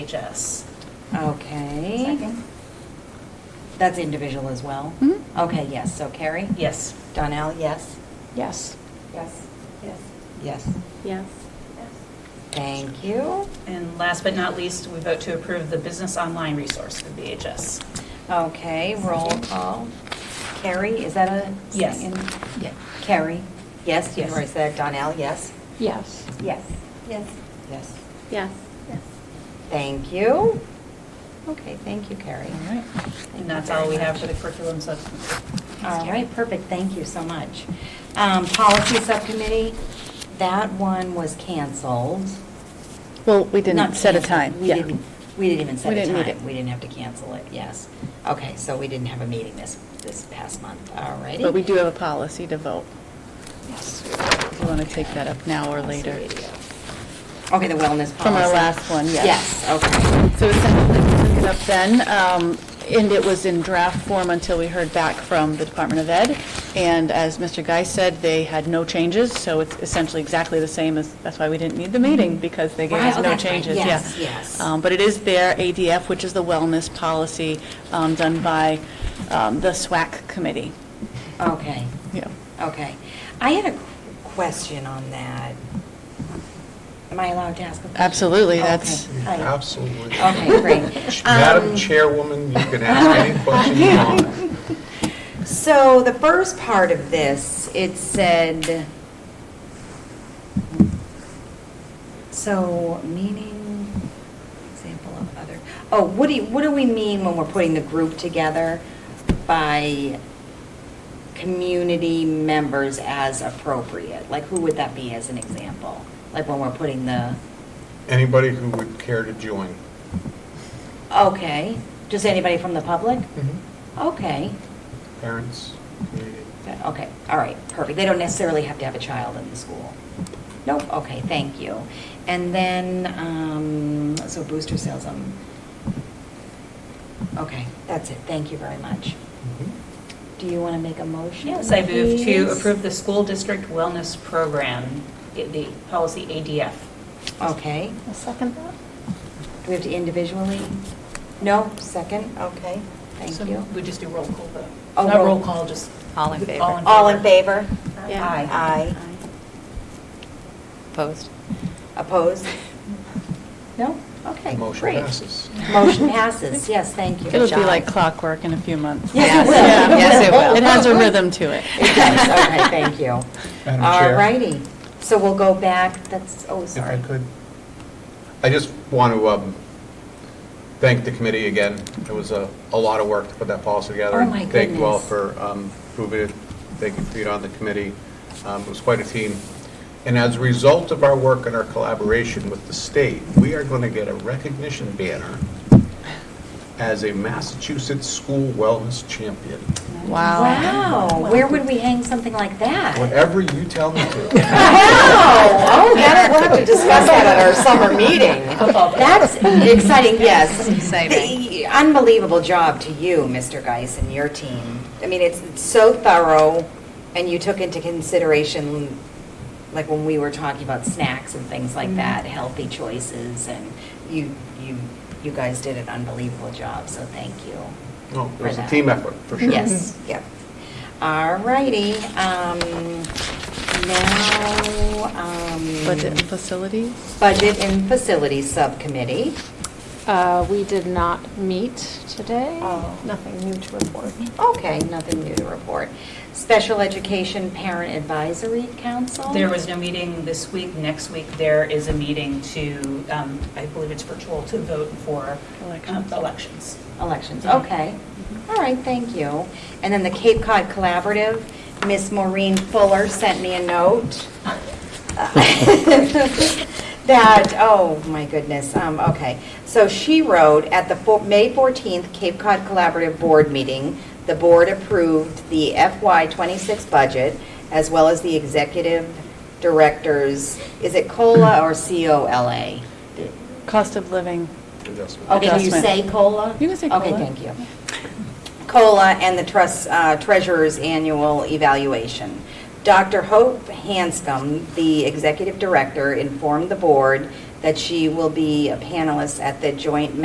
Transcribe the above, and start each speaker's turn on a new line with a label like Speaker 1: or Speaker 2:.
Speaker 1: HS.
Speaker 2: Okay. That's individual as well?
Speaker 3: Mhm.
Speaker 2: Okay, yes, so Carrie?
Speaker 1: Yes.
Speaker 2: Donnell, yes?
Speaker 3: Yes.
Speaker 4: Yes. Yes.
Speaker 2: Yes.
Speaker 3: Yes.
Speaker 2: Thank you.
Speaker 1: And last but not least, we vote to approve the business online resource for BHS.
Speaker 2: Okay, roll call. Carrie, is that a?
Speaker 1: Yes.
Speaker 2: Yeah. Carrie? Yes, you
Speaker 1: Yes.
Speaker 2: already said Donnell, yes?
Speaker 3: Yes.
Speaker 2: Yes.
Speaker 4: Yes.
Speaker 2: Yes.
Speaker 3: Yes.
Speaker 4: Yes.
Speaker 2: Thank you. Okay, thank you, Carrie.
Speaker 3: All right.
Speaker 1: And that's all we have for the curriculum substitute.
Speaker 2: All right, perfect, thank you so much. Um, Policy Subcommittee, that one was canceled.
Speaker 3: Well, we didn't
Speaker 2: Not
Speaker 3: set a
Speaker 2: canceled.
Speaker 3: time,
Speaker 2: We
Speaker 3: yeah.
Speaker 2: didn't, we didn't even set
Speaker 3: We
Speaker 2: a
Speaker 3: didn't need
Speaker 2: time.
Speaker 3: it.
Speaker 2: We didn't have to cancel it, yes. Okay, so we didn't have a meeting this, this past month, all righty.
Speaker 3: But we do have a policy to vote. Yes. You want to take that up now or later?
Speaker 2: Okay, the wellness policy.
Speaker 3: From our last one, yes.
Speaker 2: Yes, okay.
Speaker 3: So essentially, we took it up then, um, and it was in draft form until we heard back from the Department of Ed. And as Mr. Guy said, they had no changes, so it's essentially exactly the same as, that's why we didn't need the meeting, because they gave
Speaker 2: Right,
Speaker 3: us
Speaker 2: oh,
Speaker 3: no
Speaker 2: that's right.
Speaker 3: changes, yeah.
Speaker 2: Yes, yes.
Speaker 3: Um, But it is their ADF, which is the wellness policy um, done by um, the SWAC committee.
Speaker 2: Okay,
Speaker 3: Yeah.
Speaker 2: okay. I had a question on that. Am I allowed to ask a question?
Speaker 3: Absolutely, that's-
Speaker 2: Okay, I-
Speaker 5: Absolutely.
Speaker 2: Okay, great.
Speaker 5: Madam
Speaker 2: Um,
Speaker 5: Chairwoman, you can ask any question you want.
Speaker 2: So the first part of this, it said, so meaning, example of other, oh, what do, you- what do we mean when we're putting the group together by community members as appropriate? Like, who would that be as an example? Like, when we're putting the,
Speaker 5: Anybody who would care to join.
Speaker 2: okay, just anybody from the public? Okay.
Speaker 5: Parents, community.
Speaker 2: That- Okay, all right, perfect. They don't necessarily have to have a child in the school. Nope, okay, thank you. And then, um, so booster sales, um, okay, that's it, thank you very much.
Speaker 5: Mm-hmm.
Speaker 2: Do you want to make a motion?
Speaker 1: Yes, I move to
Speaker 2: please?
Speaker 1: approve the school district wellness program, i- the policy ADF.
Speaker 2: Okay,
Speaker 4: A second thought?
Speaker 2: do we have to individually? No, second, okay,
Speaker 1: So
Speaker 2: thank you.
Speaker 1: We just do roll call vote.
Speaker 2: Oh,
Speaker 1: Not
Speaker 2: roll-
Speaker 1: roll call, just.
Speaker 6: All in favor?
Speaker 2: All in favor?
Speaker 3: Yeah.
Speaker 1: Aye.
Speaker 2: Aye.
Speaker 6: Opposed?
Speaker 2: Opposed? No? Okay,
Speaker 5: Motion
Speaker 2: great.
Speaker 5: passes.
Speaker 2: Motion passes, yes, thank you.
Speaker 3: It'll
Speaker 2: Good
Speaker 3: be
Speaker 2: job.
Speaker 3: like clockwork in a few months.
Speaker 2: Yes, it will.
Speaker 3: Yeah.
Speaker 6: Yes, it will.
Speaker 3: It has a rhythm to it.
Speaker 2: It does, okay, thank you.
Speaker 5: Madam
Speaker 2: All
Speaker 5: Chair.
Speaker 2: righty, so we'll go back, that's, oh,
Speaker 5: If I
Speaker 2: sorry.
Speaker 5: could, I just want to um, thank the committee again. It was a, a lot of work to put that policy together.
Speaker 2: Oh, my
Speaker 5: Thank you all
Speaker 2: goodness.
Speaker 5: for um, moving it, thank you for being on the committee. Um, It was quite a team. And as a result of our work and our collaboration with the state, we are going to get a recognition banner as a Massachusetts School Wellness Champion,
Speaker 3: Wow.
Speaker 2: Wow, where would we hang something like that?
Speaker 5: whatever you tell me to.
Speaker 2: Wow, oh, that, we'll have to discuss that at our summer meeting. That's exciting, yes.
Speaker 6: Exciting.
Speaker 2: The- Unbelievable job to you, Mr. Geis, and your team. I mean, it's it's so thorough, and you took into consideration, like when we were talking about snacks and things like that, healthy choices, and you, you, you guys did an unbelievable job, so thank you.
Speaker 5: No, It was
Speaker 2: for
Speaker 5: a
Speaker 2: that.
Speaker 5: team effort, for sure.
Speaker 2: Yes, yep. All righty, um, now, um.
Speaker 3: Budget and facilities?
Speaker 2: Budget and Facilities Subcommittee.
Speaker 7: Uh, We did not meet today.
Speaker 2: Oh.
Speaker 7: Nothing new to report.
Speaker 2: Okay, nothing new to report. Special Education Parent Advisory Council?
Speaker 1: There was no meeting this week. Next week, there is a meeting to, um, I believe it's virtual, to vote for um,
Speaker 3: Elections.
Speaker 1: elections.
Speaker 2: Elections, okay. All right, thank you. And then the Cape Cod Collaborative, Miss Maureen Fuller sent me a note. uh, That, oh, my goodness, um, okay. So she wrote, at the fo- May 14th Cape Cod Collaborative Board meeting, the board approved the FY '26 budget as well as the executive directors, is it COLA or COLA?
Speaker 3: Cost of living.
Speaker 5: Adjustment.
Speaker 2: Okay, do you
Speaker 3: Adjustment.
Speaker 2: say COLA?
Speaker 3: You can say
Speaker 2: Okay,
Speaker 3: COLA.
Speaker 2: thank you. COLA and the trust, uh, treasurer's annual evaluation. Dr. Hope Hanscom, the executive director, informed the board that she will be a panelist at the joint